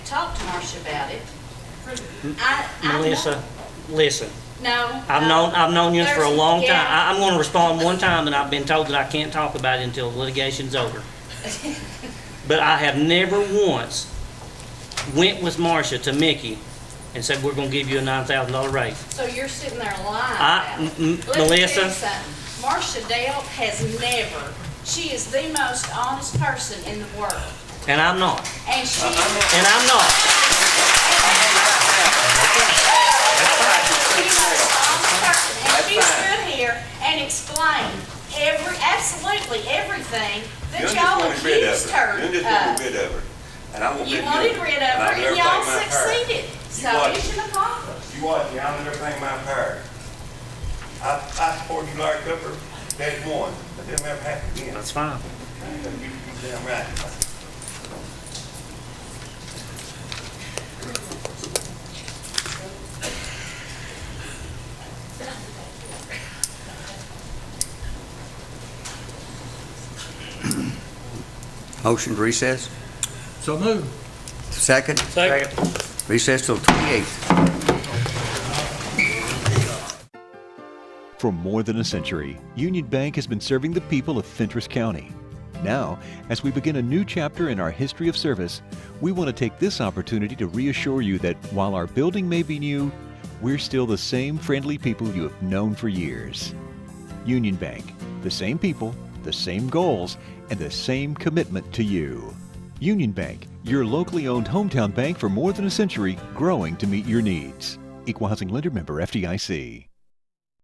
talk to Marcia about it. I, I. Melissa, listen, No. I've no. known, I've known you for a There's- long time. yeah. I, I'm gonna respond one time, and I've been told that I can't talk about it until litigation's over. But I have never once went with Marcia to Mickey and said, we're gonna give you a nine thousand dollar raise. So you're sitting there lying I- about mm, it. mm, Let me tell you Melissa. something. Marcia Dale has never, she is the most honest person in the world. And I'm not, And Uh-huh. she, and I'm not. she was the honest person. And she stood here and explained every, absolutely everything that You're y'all just wanting rid of accused her her. You're of. just wanting rid of her. And I want rid You of wanted rid of her and y'all succeeded. So want- here's the problem. You want, you want everything in my power. I, I support you Larry Cooper, day one, but it'll never happen again. That's fine. You, you damn right. Motion to recess? So move. Second? Second. Recess till 28th. For more than a century, Union Bank has been serving the people of Fentress County. Now, as we begin a new chapter in our history of service, we want to take this opportunity to reassure you that while our building may be new, we're still the same friendly people you have known for years. Union Bank, the same people, the same goals, and the same commitment to you. Union Bank, your locally owned hometown bank for more than a century, growing to meet your needs. Equal Housing Lender Member FDIC.